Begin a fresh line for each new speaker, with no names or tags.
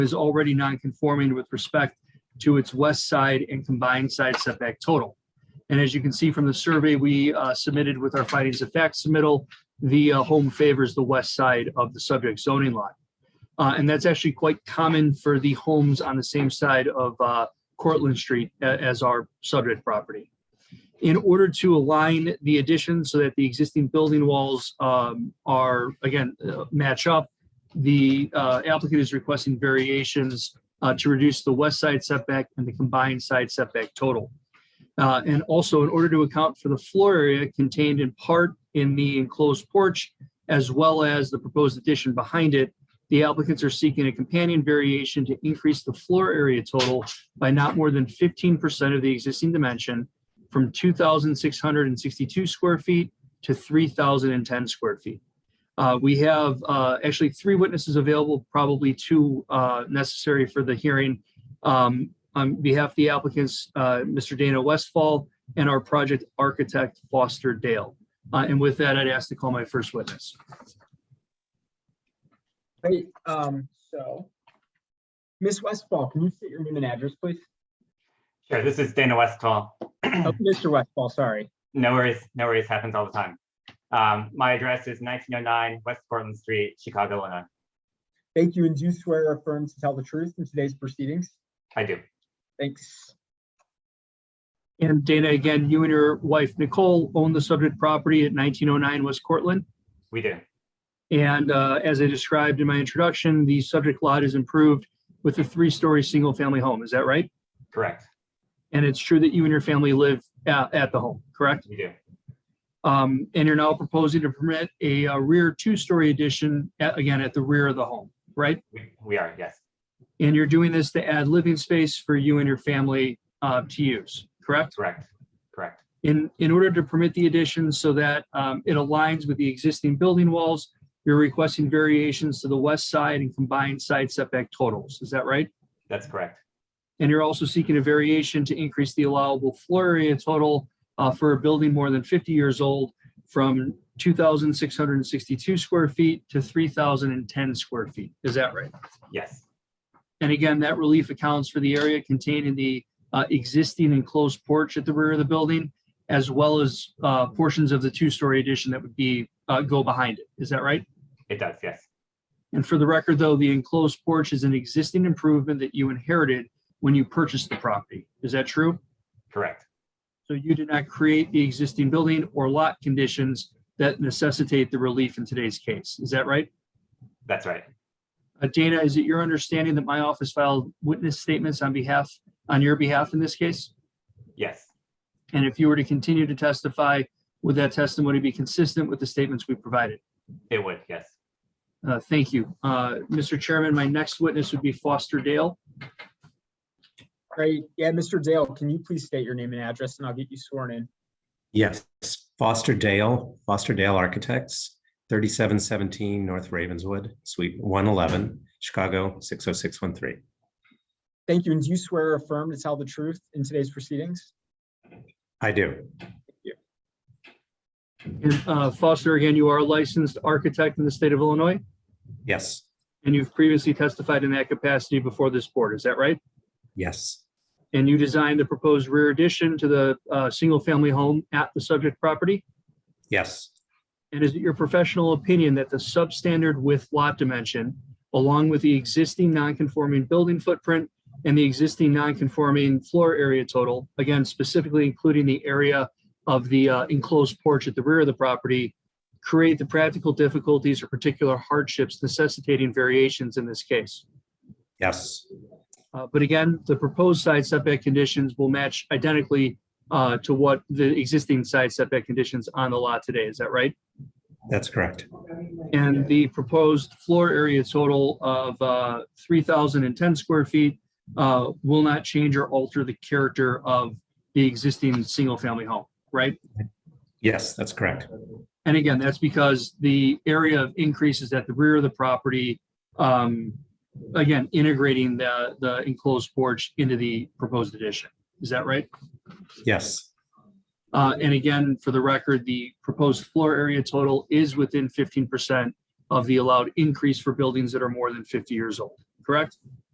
is already non-conforming with respect to its west side and combined side setback total. And as you can see from the survey we uh, submitted with our findings of fact submittal, the uh, home favors the west side of the subject zoning lot. Uh, And that's actually quite common for the homes on the same side of uh, Cortlandt Street a- as our subject property. In order to align the addition so that the existing building walls um, are, again, uh, match up, the uh, applicant is requesting variations uh, to reduce the west side setback and the combined side setback total. Uh, And also, in order to account for the floor area contained in part in the enclosed porch, as well as the proposed addition behind it, the applicants are seeking a companion variation to increase the floor area total by not more than fifteen percent of the existing dimension from two thousand six hundred and sixty-two square feet to three thousand and ten square feet. Uh, we have, uh, actually three witnesses available, probably two, uh, necessary for the hearing. Um, on behalf of the applicants, uh, Mr. Dana Westfall and our project architect Foster Dale. Uh, and with that, I'd ask to call my first witness.
Great, um, so. Ms. Westfall, can you state your name and address, please?
Sure, this is Dana Westall.
Oh, Mr. Westfall, sorry.
No worries, no worries, happens all the time. Um, my address is nineteen oh nine West Portland Street, Chicago, Illinois.
Thank you, and do swear or affirm to tell the truth in today's proceedings?
I do.
Thanks.
And Dana, again, you and your wife Nicole own the subject property at nineteen oh nine West Cortland.
We do.
And uh, as I described in my introduction, the subject lot is improved with a three-story single-family home. Is that right?
Correct.
And it's true that you and your family live at, at the home, correct?
We do.
Um, and you're now proposing to permit a, uh rear two-story addition, a- again, at the rear of the home, right?
We, we are, yes.
And you're doing this to add living space for you and your family uh, to use, correct?
Correct. Correct.
In, in order to permit the addition so that um, it aligns with the existing building walls, you're requesting variations to the west side and combined side setback totals. Is that right?
That's correct.
And you're also seeking a variation to increase the allowable floor area total uh, for a building more than 50 years old from 2,662 square feet to 3,010 square feet. Is that right?
Yes.
And again, that relief accounts for the area contained in the uh, existing enclosed porch at the rear of the building, as well as uh, portions of the two-story addition that would be, uh, go behind it. Is that right?
It does. Yes.
And for the record, though, the enclosed porch is an existing improvement that you inherited when you purchased the property. Is that true?
Correct.
So you did not create the existing building or lot conditions that necessitate the relief in today's case. Is that right?
That's right.
Uh, Dana, is it your understanding that my office filed witness statements on behalf, on your behalf in this case?
Yes.
And if you were to continue to testify, would that testimony be consistent with the statements we provided?
It would. Yes.
Uh, Thank you. Uh, Mr. Chairman, my next witness would be Foster Dale.
Great, yeah, Mr. Dale, can you please state your name and address, and I'll get you sworn in?
Yes, Foster Dale, Foster Dale Architects, 3717 North Ravenswood, Suite 111, Chicago 60613.
Thank you, and do you swear or affirm to tell the truth in today's proceedings?
I do.
And, uh, Foster, again, you are a licensed architect in the state of Illinois,
Yes,
and you've previously testified in that capacity before this board, is that right?
yes,
And you designed the proposed rear addition to the uh, single-family home at the subject property?
yes,
And is it your professional opinion that the substandard with lot dimension, along with the existing non-conforming building footprint and the existing non-conforming floor area total, again, specifically including the area of the uh, enclosed porch at the rear of the property, create the practical difficulties or particular hardships necessitating variations in this case?
yes,
Uh, But again, the proposed side setback conditions will match identically uh, to what the existing side setback conditions on the lot today. Is that right?
that's correct.
And the proposed floor area total of uh, 3,010 square feet uh, will not change or alter the character of the existing single-family home, right?
Yes, that's correct.
And again, that's because the area of increase is at the rear of the property. um, Again, integrating the, the enclosed porch into the proposed addition. Is that right?
Yes,
Uh, and again, for the record, the proposed floor area total is within fifteen percent of the allowed increase for buildings that are more than fifty years old, correct?